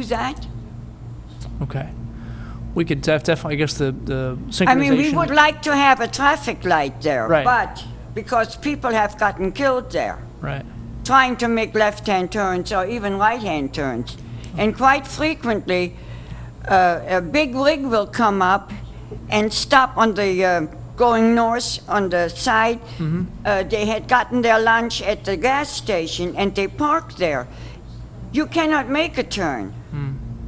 do that. Okay. We could def- definitely, I guess the, the synchronization. I mean, we would like to have a traffic light there. Right. But because people have gotten killed there, Right, trying to make left-hand turns or even right-hand turns. And quite frequently, uh, a big rig will come up and stop on the, uh, going north on the side. Mm-hmm. Uh, They had gotten their lunch at the gas station and they parked there. You cannot make a turn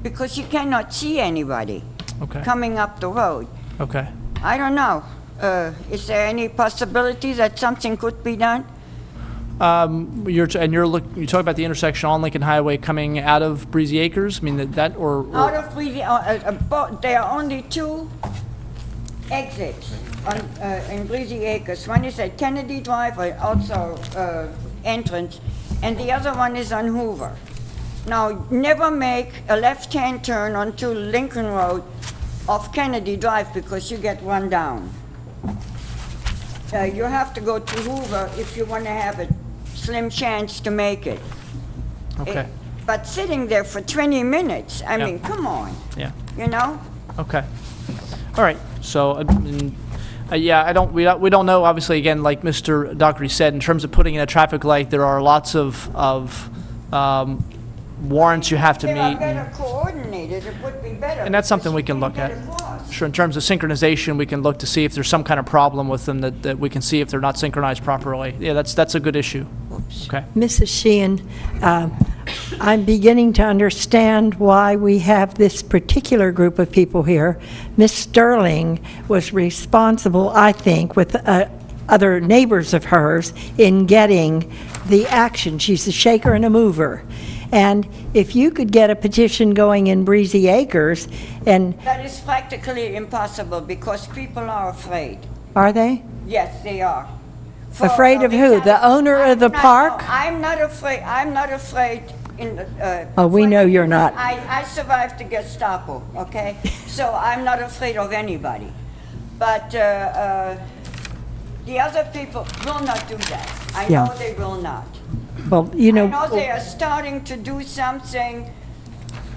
because you cannot see anybody Hmm. okay, coming up the road. okay. I don't know. Uh, Is there any possibility that something could be done? Um, you're, t- and you're look, you talk about the intersection on Lincoln Highway coming out of Breezy Acres, I mean, that, that or, or- Out of Breezy, uh, uh, uh, bo- there are only two exits on, uh, in Breezy Acres. One is at Kennedy Drive, uh, also uh, entrance, and the other one is on Hoover. Now, never make a left-hand turn onto Lincoln Road off Kennedy Drive because you get run down. Uh, You have to go to Hoover if you want to have a slim chance to make it. okay, But sitting there for 20 minutes, I Yeah. mean, come on, yeah. you know? Okay. All right, so, I mean, uh, yeah, I don't, we don't, we don't know, obviously, again, like Mr. Dockery said, in terms of putting in a traffic light, there are lots of, of, um, warrants you have to They are meet. better and- coordinated, it would be better. And that's something because we you can look can't at. get across. Sure, in terms of synchronization, we can look to see if there's some kind of problem with them that, that we can see if they're not synchronized properly. Yeah, that's, that's a good issue. Okay, Mrs. Sheehan, uh, I'm beginning to understand why we have this particular group of people here. Miss Sterling was responsible, I think, with uh, other neighbors of hers in getting the action. She's a shaker and a mover. And if you could get a petition going in Breezy Acres, and That is practically impossible because people are afraid. are they? Yes, they are. For- Afraid of uh, who? because The owner of I'm the not- no, park? I'm not afraid, I'm not afraid in the, uh... Oh, we know you're not. I, I survived the Gestapo, okay? So I'm not afraid of anybody. But, uh, uh, the other people will not do that. I Yeah. know they will not. Well, you I know. oh. know they are starting to do something,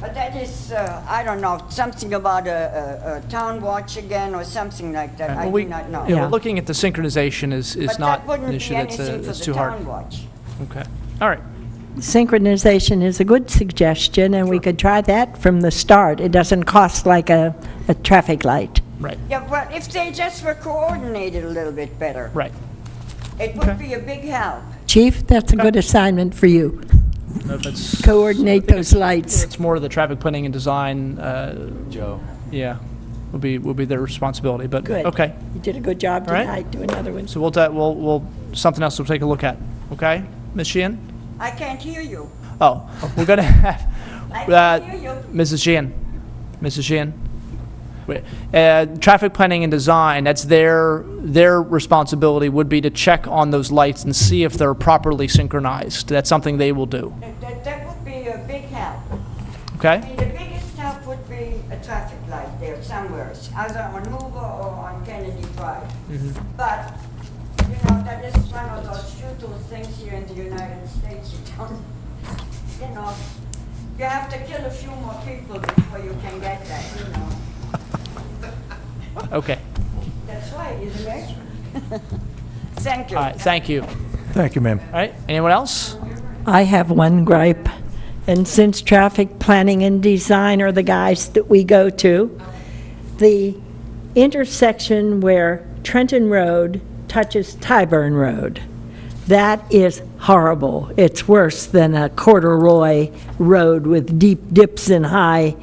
but that is, uh, I don't know, something about a, a, a town watch again or something like that. I Well, do we- not know. yeah, Yeah. we're looking at the synchronization is, is But not that an wouldn't issue be that's, uh, anything for that's the too town hard. watch. Okay, all right, Synchronization is a good suggestion, and we could try that from the start. It doesn't cost like a, a traffic light. right, Yeah, well, if they just were coordinated a little bit better, right. it would Okay. be a big help. Chief, that's a good assignment for you. No, that's- Coordinate those lights. It's more of the traffic planning and design. Joe. Yeah, will be, will be their responsibility, but, Good. okay. You did a good job All right. tonight. Do another one. So we'll, ta- we'll, we'll, something else we'll take a look at, okay? Ms. Sheehan? I can't hear you. Oh, we're gonna have, I uh, can hear you. Mrs. Sheehan, Mrs. Sheehan. Wait, Uh, traffic planning and design, that's their, their responsibility would be to check on those lights and see if they're properly synchronized. That's something they will do, That- That, that would be a big help. I okay? mean, the biggest help would be a traffic light there somewhere, either on Hoover or on Kennedy Drive. But, you know, that is one of those futile things here in the United States, you don't, you know, you have to kill a few more people before you can get that, you know. Okay, That's right, isn't it? Thank you. all right, thank you. Thank you, ma'am. All right, anyone else? I have one gripe, and since traffic planning and design are the guys that we go to, the intersection where Trenton Road touches Tyburn Road, that is horrible. It's worse than a corduroy road with deep dips and high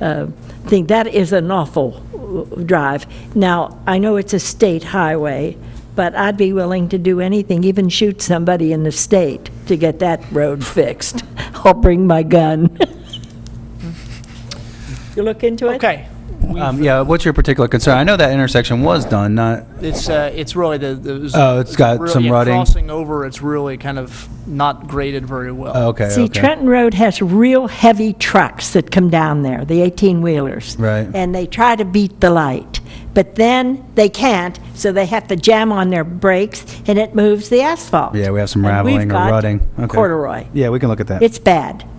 uh, thing. That is an awful uh, drive. Now, I know it's a state highway, but I'd be willing to do anything, even shoot somebody in the state to get that road fixed. I'll bring my gun. You look into it? Okay, Um, yeah, what's your particular concern? I know that intersection was done, not, it's, uh, it's really the, the. Oh, it's got really- some yeah, rutting. Crossing over, it's really kind of not graded very well. oh, okay, See, okay. Trenton Road has real heavy trucks that come down there, the 18-wheelers. Right. And they try to beat the light, but then they can't, so they have to jam on their brakes, and it moves the asphalt. Yeah, we have some And we've raveling or got rutting. Okay. corduroy. Yeah, we can look at that. It's bad.